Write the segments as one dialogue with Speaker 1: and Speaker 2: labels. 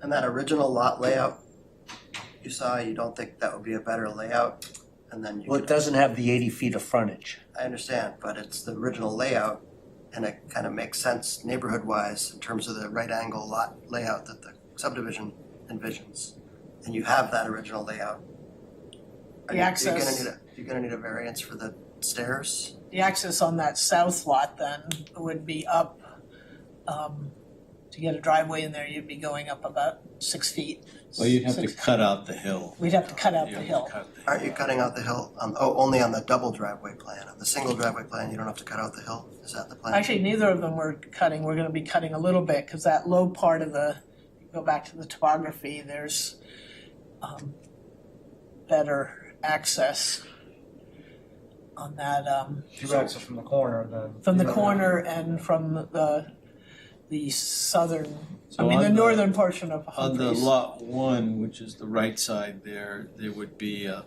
Speaker 1: And that original lot layout you saw, you don't think that would be a better layout? And then you
Speaker 2: Well, it
Speaker 1: could,
Speaker 2: doesn't have the eighty feet of frontage.
Speaker 1: I understand, but it's the original layout and it kind of makes sense neighborhood-wise in terms of the right angle lot layout that the subdivision envisions. And you have that original layout. Are
Speaker 3: The
Speaker 1: you- You're gonna
Speaker 3: access-
Speaker 1: need a, you're gonna need a variance for the stairs?
Speaker 3: The access on that south lot then would be up, um, to get a driveway in there, you'd be going up about six feet.
Speaker 4: Well, you'd have to
Speaker 3: Six-
Speaker 4: cut out the hill.
Speaker 3: We'd have to cut out
Speaker 4: You'd
Speaker 3: the
Speaker 4: have to
Speaker 3: hill.
Speaker 4: cut the
Speaker 1: Aren't you
Speaker 4: hill.
Speaker 1: cutting out the hill on, oh, only on the double driveway plan? On the single driveway plan, you don't have to cut out the hill? Is that the plan?
Speaker 3: Actually, neither of them we're cutting, we're gonna be cutting a little bit, cause that low part of the, go back to the topography, there's, um, better access on that, um,
Speaker 5: Two exits from the corner, then.
Speaker 3: from the
Speaker 5: Yeah.
Speaker 3: corner and from the, the southern, I
Speaker 4: So
Speaker 3: mean,
Speaker 4: on
Speaker 3: the northern portion of
Speaker 4: On
Speaker 3: Humphreys.
Speaker 4: the lot one, which is the right side there, there would be a,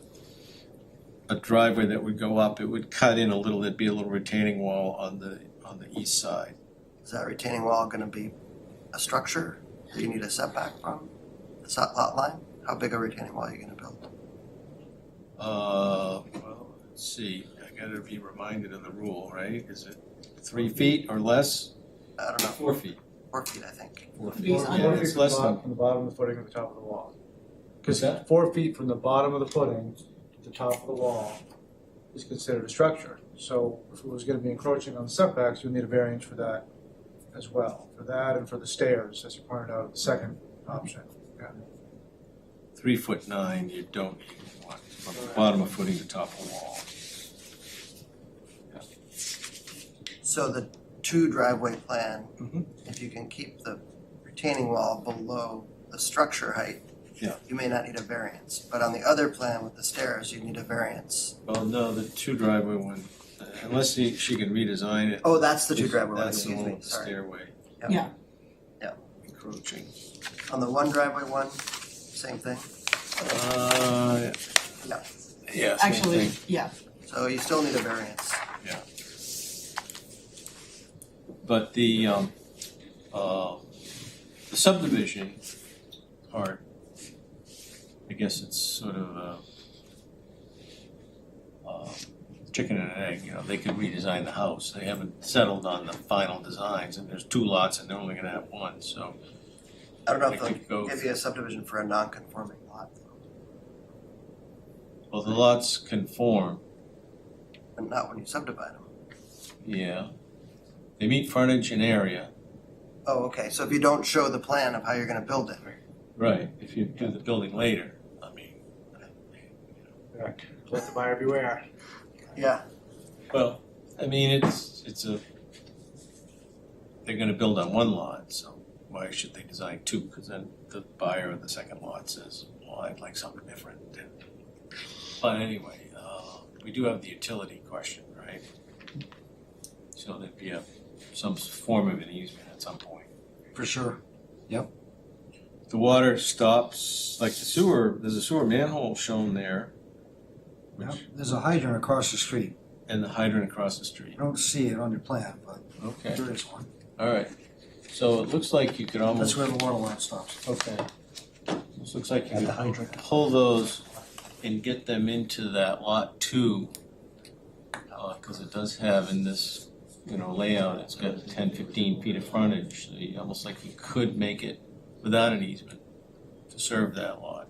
Speaker 4: a driveway that would go up. It would cut in a little, there'd be a little retaining wall on the, on the east side.
Speaker 1: Is that retaining wall gonna be a structure that you need a setback from the sot lot line? How big a retaining wall are you gonna build?
Speaker 4: Uh, well, let's see, I gotta be reminded of the rule, right? Is it three feet or less?
Speaker 1: I don't know,
Speaker 4: Four feet.
Speaker 1: four feet, I think.
Speaker 4: Four feet.
Speaker 3: These
Speaker 5: Four- Four
Speaker 4: Yeah,
Speaker 5: feet
Speaker 4: it's
Speaker 5: from the
Speaker 4: less
Speaker 5: bottom,
Speaker 4: than,
Speaker 5: from the bottom of the footing to the top of the wall. Because
Speaker 4: that?
Speaker 5: four feet from the bottom of the footing to the top of the wall is considered a structure. So if it was gonna be encroaching on the setbacks, you'd need a variance for that as well, for that and for the stairs, as you pointed out, the second option.
Speaker 4: three foot nine, you don't need one, from the bottom of footing to top of wall.
Speaker 1: So the two driveway plan,
Speaker 4: Mhm.
Speaker 1: if you can keep the retaining wall below the structure height,
Speaker 4: Yeah.
Speaker 1: you may not need a variance, but on the other plan with the stairs, you need a variance.
Speaker 4: Well, no, the two driveway one, uh, unless she, she can redesign it.
Speaker 1: Oh, that's the two driveway one,
Speaker 4: That's the
Speaker 1: excuse
Speaker 4: one
Speaker 1: me,
Speaker 4: with the
Speaker 1: sorry.
Speaker 4: stairway.
Speaker 1: Yeah.
Speaker 3: Yeah.
Speaker 1: Yeah.
Speaker 4: Encroaching.
Speaker 1: On the one driveway one, same thing.
Speaker 4: Uh,
Speaker 1: Yeah.
Speaker 4: yeah, same
Speaker 3: Actually,
Speaker 4: thing.
Speaker 3: yeah,
Speaker 1: So you still need a variance.
Speaker 4: But the, um, uh, the subdivision part, I guess it's sort of a, uh, chicken and an egg, you know, they could redesign the house. They haven't settled on the final designs, and there's two lots, and they're only gonna have one, so
Speaker 1: I don't know
Speaker 4: They
Speaker 1: if
Speaker 4: could go-
Speaker 1: they'll give you a subdivision for a non-conforming lot,
Speaker 4: Well, the lots conform,
Speaker 1: but not when you subdivide them.
Speaker 4: yeah. They meet frontage and area.
Speaker 1: Oh, okay, so if you don't show the plan of how you're gonna build it,
Speaker 4: Right. If you do the building later, I mean.
Speaker 5: Let the buyer beware.
Speaker 1: yeah,
Speaker 4: Well, I mean, it's, it's a, they're gonna build on one lot, so why should they design two? Because then the buyer of the second lot says, well, I'd like something different. But anyway, uh, we do have the utility question, right? So there'd be a, some form of an easement at some point.
Speaker 1: for sure.
Speaker 4: the water stops, like the sewer, there's a sewer manhole shown there.
Speaker 6: Yep,
Speaker 4: Which,
Speaker 6: there's a hydrant across the street.
Speaker 4: and the hydrant across the street.
Speaker 6: You don't see it on your plan, but
Speaker 4: Okay,
Speaker 6: there is one.
Speaker 4: all right. So it looks like you could
Speaker 6: That's
Speaker 4: almost,
Speaker 6: where the water line stops.
Speaker 4: okay. This looks like you could pull those and get them into that lot two. Uh 'cause cause it does have in this, you know, layout, it's got 10, 15 feet of frontage, so you, almost like you could make it without an easement to serve that lot.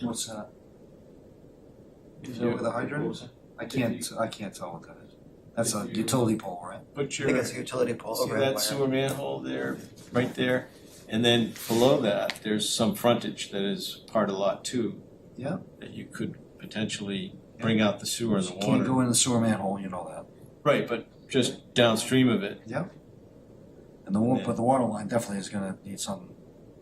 Speaker 6: What's that? Is
Speaker 4: So-
Speaker 6: that where the hydrant is? I can't, I can't tell what that is. That's a utility pole, right?
Speaker 4: Put
Speaker 1: I
Speaker 4: your.
Speaker 1: think it's a utility pole
Speaker 4: See
Speaker 1: overhead
Speaker 4: that
Speaker 1: wire.
Speaker 4: sewer manhole there, right there? And then below that, there's some frontage that is part of lot two.
Speaker 6: Yeah.
Speaker 4: That you could potentially bring out the sewer and the
Speaker 6: Can't
Speaker 4: water.
Speaker 6: go in the sewer manhole, you know that.
Speaker 4: Right, but just downstream of it,
Speaker 6: And the wa,
Speaker 4: Yeah.
Speaker 6: but the water line definitely is gonna need some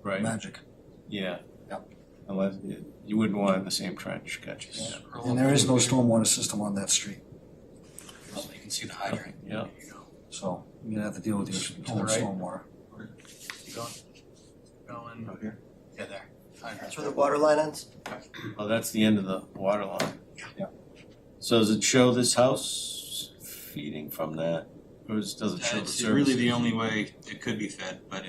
Speaker 4: right?
Speaker 6: magic.
Speaker 4: Yeah.
Speaker 6: Yep.
Speaker 4: Unless, you wouldn't want it in the same trench, gotcha.
Speaker 6: And there is no stormwater system on that street,
Speaker 7: You can see the hydrant.
Speaker 4: Yeah,
Speaker 6: so you're gonna have to deal with the
Speaker 7: To the
Speaker 6: whole
Speaker 7: right.
Speaker 6: stormwater.
Speaker 7: Keep going. Going.
Speaker 4: out here.
Speaker 7: Yeah, there. Hydrant.
Speaker 1: That's where the water line ends?
Speaker 4: Oh, that's the end of the water line.
Speaker 6: Yeah.
Speaker 4: So does it show this house feeding from that? Or does does it show the
Speaker 7: That's
Speaker 4: service?
Speaker 7: really the only way it could be fed, but uh,